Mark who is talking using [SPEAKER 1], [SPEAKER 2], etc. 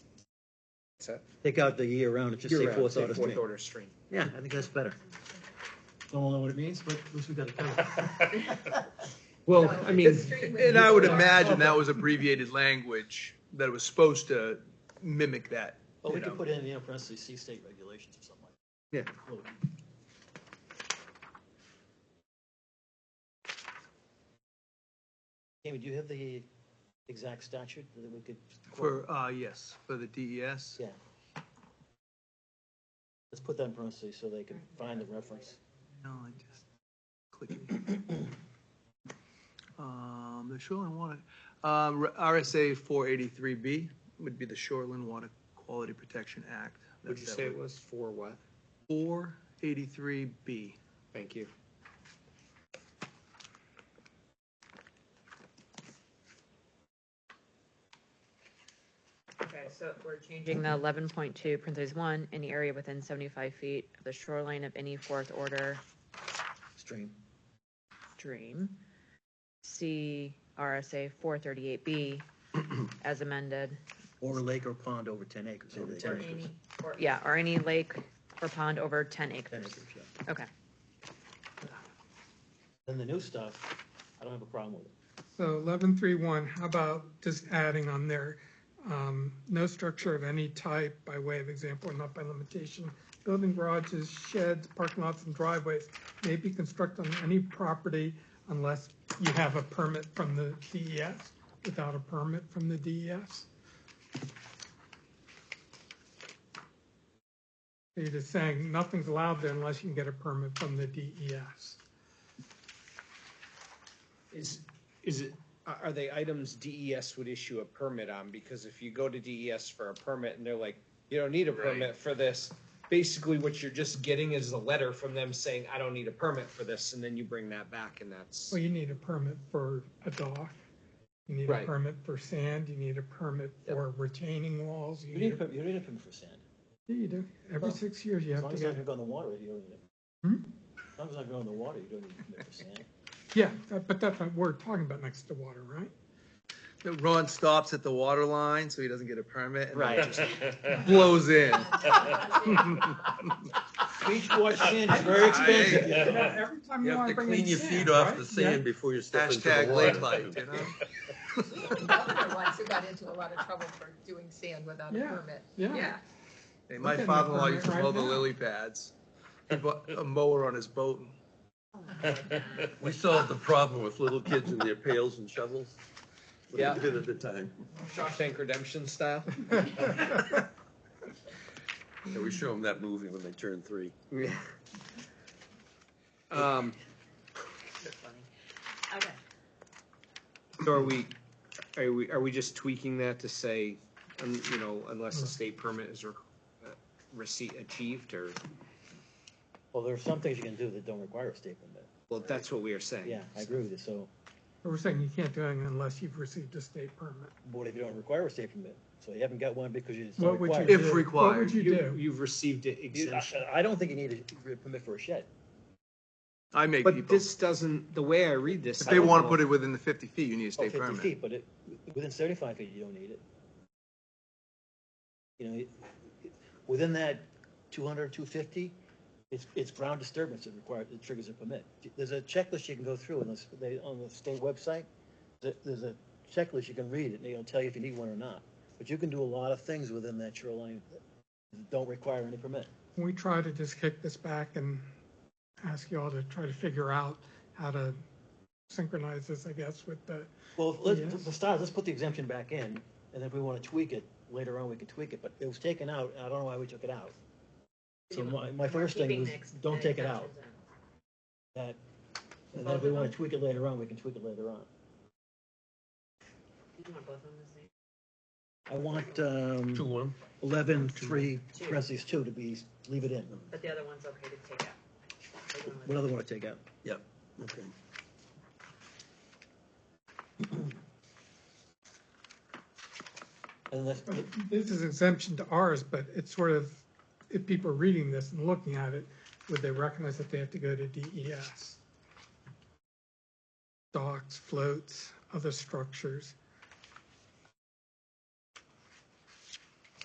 [SPEAKER 1] set.
[SPEAKER 2] Take out the year round, and just say
[SPEAKER 1] Year-round,
[SPEAKER 2] fourth
[SPEAKER 1] say
[SPEAKER 2] order
[SPEAKER 1] fourth
[SPEAKER 2] stream.
[SPEAKER 1] order stream.
[SPEAKER 2] Yeah, I think that's better.
[SPEAKER 3] Don't all know what it means, but at least we got it covered.
[SPEAKER 4] Well, I mean,
[SPEAKER 5] And
[SPEAKER 6] And I would imagine that was abbreviated language that was supposed to mimic that.
[SPEAKER 3] But we
[SPEAKER 6] you
[SPEAKER 3] could
[SPEAKER 6] know.
[SPEAKER 3] put in the NFRC state regulations or something like. that. Yeah. Amy, do you have the exact statute that we could? quote?
[SPEAKER 6] For, uh, yes, for the E DES.
[SPEAKER 3] Yeah. Let's put that in parentheses so they can find the reference.
[SPEAKER 6] No, I just click it. Um, the shoreline water, um, RSA four eighty-three B would be the Shoreline Water Quality Protection Act.
[SPEAKER 1] Would you say it was for what?
[SPEAKER 6] Four eighty-three B.
[SPEAKER 1] Thank you.
[SPEAKER 5] Okay, so we're changing
[SPEAKER 4] changing the eleven point two, parentheses one, any area within seventy-five feet of the shoreline of any fourth order
[SPEAKER 2] Stream.
[SPEAKER 4] stream. See RSA four thirty-eight B as amended,
[SPEAKER 2] Or a lake or pond over ten acres.
[SPEAKER 3] Over
[SPEAKER 2] Over
[SPEAKER 3] 10
[SPEAKER 5] or
[SPEAKER 2] ten
[SPEAKER 5] any, or
[SPEAKER 4] yeah, or any lake or pond over ten acres.
[SPEAKER 2] acres, yeah.
[SPEAKER 4] Okay,
[SPEAKER 3] Then the new stuff, I don't have a problem with it.
[SPEAKER 7] So eleven three one, how about just adding on there, um, no structure of any type by way of example or not by limitation. Building garages, sheds, parking lots and driveways may be constructed on any property unless you have a permit from the DES. Without a permit from the E DES. You're just saying nothing's allowed there unless you can get a permit from the E DES.
[SPEAKER 1] Is, is it, are are they items DES would issue a permit on? Because if you go to DES for a permit and they're like, you don't need a permit for this, basically what you're just getting is a letter from them saying, I don't need a permit for this, and then you bring that back and that's,
[SPEAKER 7] Well, you need a permit for a dock, you need a
[SPEAKER 1] Right.
[SPEAKER 7] permit for sand, you need a permit for retaining walls, you
[SPEAKER 3] You need
[SPEAKER 7] need,
[SPEAKER 3] a,
[SPEAKER 7] a-
[SPEAKER 3] permit- you need a permit for sand.
[SPEAKER 7] Yeah, you do, every
[SPEAKER 3] Well,
[SPEAKER 7] six years you
[SPEAKER 3] As
[SPEAKER 7] have
[SPEAKER 3] long
[SPEAKER 7] to
[SPEAKER 3] as it's not
[SPEAKER 7] get,
[SPEAKER 3] gonna go in the water, you don't need it.
[SPEAKER 7] Hmm?
[SPEAKER 3] As long as it's not going in the water, you don't need a permit for sand.
[SPEAKER 7] yeah, that- but that's what we're talking about next to water, right?
[SPEAKER 6] Ron stops at the water line, so he doesn't get a permit. and
[SPEAKER 1] Right.
[SPEAKER 6] just Blows in.
[SPEAKER 3] Beach wash sand is very expensive.
[SPEAKER 6] Yeah.
[SPEAKER 7] You know, Every time
[SPEAKER 8] You
[SPEAKER 7] you
[SPEAKER 8] have
[SPEAKER 7] wanna
[SPEAKER 8] to
[SPEAKER 7] bring in
[SPEAKER 8] clean your
[SPEAKER 7] sand,
[SPEAKER 8] feet off
[SPEAKER 7] right?
[SPEAKER 8] the
[SPEAKER 7] Yeah.
[SPEAKER 8] sand before you step into the
[SPEAKER 6] Hashtag lake
[SPEAKER 8] water.
[SPEAKER 6] life, you know?
[SPEAKER 5] governor once who got into a lot of trouble for doing sand without a
[SPEAKER 7] Yeah,
[SPEAKER 5] permit.
[SPEAKER 7] yeah.
[SPEAKER 6] Hey, My
[SPEAKER 7] Look at my
[SPEAKER 6] father-in-law used to
[SPEAKER 7] permit
[SPEAKER 6] mow
[SPEAKER 7] right
[SPEAKER 6] the
[SPEAKER 7] now.
[SPEAKER 6] lily pads. He bought a mower on his boat.
[SPEAKER 8] We solved the problem with little kids and their pails and shovels. What
[SPEAKER 1] Yeah.
[SPEAKER 8] they did at the time.
[SPEAKER 1] Shawshank Redemption style.
[SPEAKER 8] Yeah, we show them that movie when they turn three.
[SPEAKER 1] Um,
[SPEAKER 4] okay.
[SPEAKER 1] so are we, are we, are we just tweaking that to say, um, you know, unless a state permit is re- uh, receipt achieved, or,
[SPEAKER 3] Well, there are some things you can do that don't require a state permit.
[SPEAKER 1] well, that's what we are saying.
[SPEAKER 3] Yeah, I agree with you. So,
[SPEAKER 7] But We're saying you can't do anything unless you've received a state permit.
[SPEAKER 3] what if you don't require a state permit? So you haven't got one because you- it's not
[SPEAKER 7] What would you
[SPEAKER 3] required.
[SPEAKER 7] do?
[SPEAKER 6] If
[SPEAKER 7] What
[SPEAKER 6] required.
[SPEAKER 7] would you
[SPEAKER 1] You,
[SPEAKER 7] do?
[SPEAKER 1] you've received it
[SPEAKER 3] You-
[SPEAKER 1] exemption.
[SPEAKER 3] I I don't think you need a permit for a shed.
[SPEAKER 6] I make
[SPEAKER 1] But
[SPEAKER 6] people,
[SPEAKER 1] this doesn't, the way I read this.
[SPEAKER 6] if they want to put it within the fifty feet, you need a
[SPEAKER 3] Oh,
[SPEAKER 6] state
[SPEAKER 3] 50
[SPEAKER 6] permit.
[SPEAKER 3] feet, but it, within seventy-five feet, you don't need it. You know, it- it- within that 200, 250, it's, it's ground disturbance that requires, that triggers a permit. There's a checklist you can go through on this, they, on the state website, there, there's a checklist you can read, and they'll tell you if you need one or not. But you can do a lot of things within that shoreline that don't require any permit.
[SPEAKER 7] We try to just kick this back and ask you all to try to figure out how to synchronize this, I guess, with the
[SPEAKER 3] Well, let's,
[SPEAKER 7] Yes.
[SPEAKER 3] for starters, let's put the exemption back in, and then if we want to tweak it, later on, we can tweak it, but it was taken out, and I don't know why we took it out. So my, my first thing was, don't take it out, that, and then if we want to tweak it later on, we can tweak it later on. I want,
[SPEAKER 8] Two,
[SPEAKER 3] um,
[SPEAKER 8] one.
[SPEAKER 3] eleven, three,
[SPEAKER 4] Two.
[SPEAKER 3] parentheses two to be, leave it in.
[SPEAKER 4] But the other one's okay to take out.
[SPEAKER 3] What other one to take out?
[SPEAKER 8] Yep, okay.
[SPEAKER 3] And that's,
[SPEAKER 7] This is exemption to ours, but it's sort of, if people are reading this and looking at it, would they recognize that they have to go to E DES? Docks, floats, other structures,